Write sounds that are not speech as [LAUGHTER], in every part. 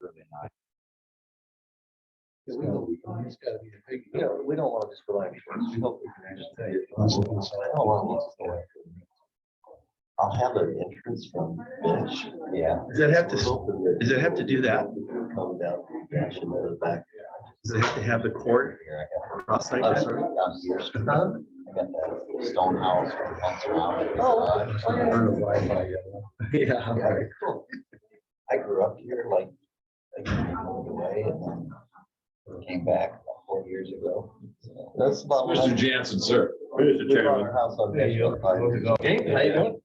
really not. Yeah, we don't- It's gotta be a big. Yeah, we don't want to just rely on. insurance. We hope we can actually tell you. I don't want to go after them. I'll have an entrance from bench, yeah. Does that have to, s- does it have to do that? Come down from bench and then back. does it have to have the court Here, cross I like got. I'm that? sorry, I'm here. I got that stone house. Uh, that comes around. Oh, Yeah. Yeah, okay, cool. I grew up here like, I moved away and then came back about four years ago. So That's about. Mr. Jansen, sir. We bought our house on There you Nashville five years ago. Hey, how you doing?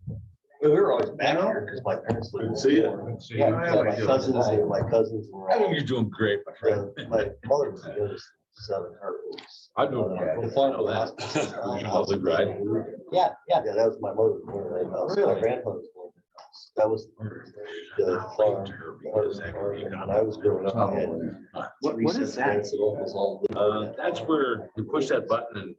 We were always back here because my parents. lived Good to see you. there. Good to see Yeah, you. yeah, my cousins, and my cousins were I think all, you're doing great, my friend. yeah, my mother was the oldest son of hers. I know. I know that. [LAUGHS] How's it, right? Yeah, yeah, yeah, that was my mother. born in that house. My grandfather was born in that house. That was the farm. When I was growing up, I had What, three what is that? sisters and uncles all lived in Oh, Uh, that that's farm. where you push that button and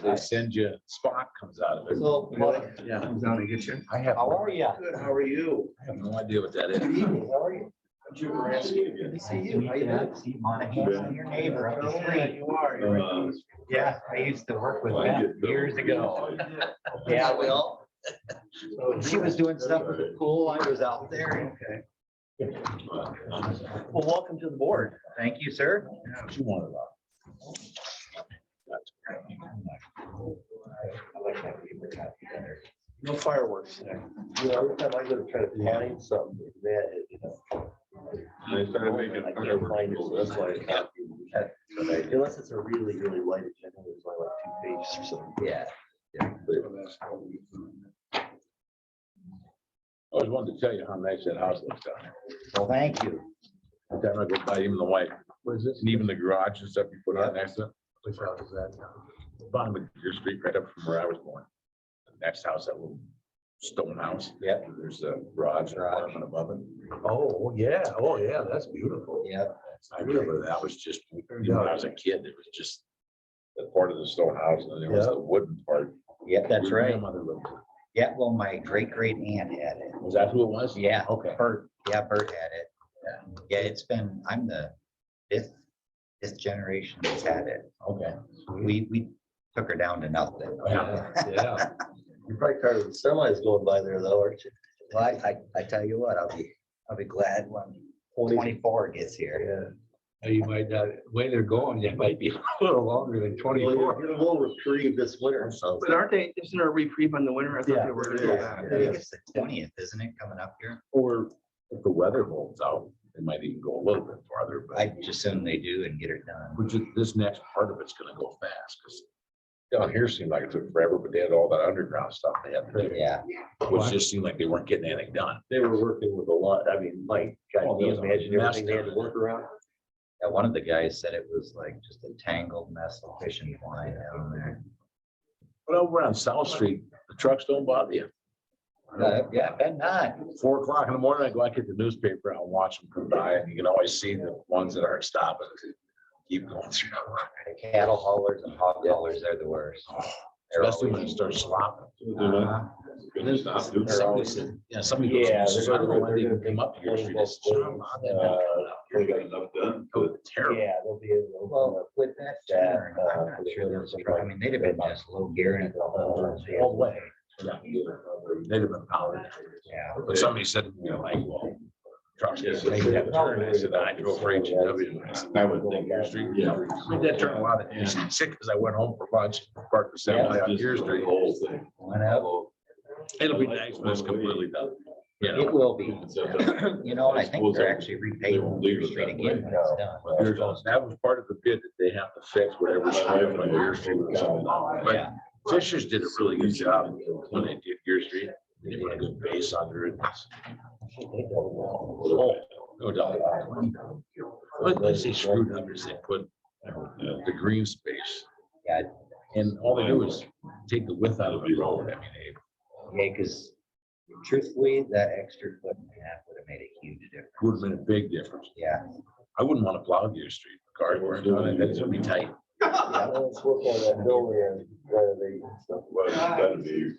they send you, Spock comes out of it. So, Mike, Yeah, comes down to get you. I have, how are you? Good, how are you? I have no idea what that Good is. evening, how are you? Good to see you. How you doing? Steve Monahan, your neighbor up the street. You are. you're right. Yeah, I used to work with them years ago. Yeah, Yeah, we all. when she was doing stuff with the pool. I was out there. Okay. Well, welcome to the board. Thank you, sir. What you wanted about? No fireworks today. You know, every time I go to try to find something, that, you know. They started making I can't fireworks. find it, so that's why I can't. Unless it's a really, really light agenda, there's only like two pages or something. Yeah. I always wanted to tell you how nice that house looks down there. Well, thank you. Every time I go by, even the white, What is this? and even the garage and stuff you put on next to it. Which house is that? bottom of your street, right up from where I was born. The Next house, that little stone house. Yeah. There's a garage and apartment above it. Oh, yeah, oh, yeah, that's beautiful. Yeah. I remember that was just, you know, when I was a kid, it was just the part of the stone house and then there was Yeah. the wooden part. Yeah, that's Where my right. mother lived. Yeah, well, my great great aunt had it. Was that who it was? Yeah. Okay. Bert, yeah, Bert had it. Yeah, it's been, I'm the fifth, fifth generation that's had it. Okay. Mm-hmm. We, we took her down to nothing. Yeah. Yeah. You're probably tired of the semis going by there though, aren't you? Well, I, I, I tell you what, I'll be, I'll be glad when twenty-four gets here. Yeah. Now, You might not, way they're going, it might be [LAUGHS] a little longer than twenty-four. We'll retrieve this winter. so- But aren't they, isn't there a reprieve on the winter? I thought Yeah, they were gonna there go is. back. I think it's the twentieth, isn't it, coming up here? Or if the weather holds out, it might even go a little bit farther, I but just assume they do and get it done. which is, this next part of it's gonna go fast because down here seemed like it took forever, but they had all that underground stuff they had to do. Yeah, which just seemed like they weren't getting anything done. They were working with a lot, I mean, Mike, Oh, God, you there was a imagine mess everything they had to down there. work around? Yeah, one of the guys said it was like just a tangled mess of fishing line down there. But over on South Street, the trucks don't bother you. Uh, Yeah, but not. Four o'clock in the morning, I go, I get the newspaper, I'll watch them come by and you can always see the ones that aren't stopping. Keep going through. [LAUGHS] The cattle haulers and hog haulers, they're the worst. They're Especially when always- it starts slopping. Uh-huh. There's- Somebody said, yeah, somebody goes, Yeah, they're I don't know gonna- why they they're even gonna came up here. take She both just, "John, ways. Bob, they've uh, got enough They done." It was Oh, Terrible. Yeah, they'll be able to. open Well, up. with that, Yeah, generator, uh, I'm not sure there's, a pro- I mean, they'd have been just low gearing it the whole All the time. way. Yeah. They'd have been powered. Yeah. But somebody said, you know, like, well. Trucks, they have a turn, I said, I drove for H and W. I would think your street. Yeah. I made that turn a lot of, it's sick, because I went home for lunch, parked the semi on your street. Went up, It'll be nice when it's completely done. Yeah. it will be. [COUGHS] You know, and I think they're actually repaving leave the it street that again when it's done. There's, that was part of the bid that they have to fix whatever. street on Deer Street was on. But Yeah, Fishers did a really good job when they did your street. They put a good base under it. Oh, no doubt. But they say screwed up is they put the green space. Yeah. And all they do is take the width out of the road. I mean, they yeah, because truthfully, that extra foot and a half would have made a huge difference. would have been a big difference. Yeah. I wouldn't want to plow your street. Cars were doing it. That's gonna be tight. Yeah, let's work on that building and, uh, they, stuff. Well, that'd be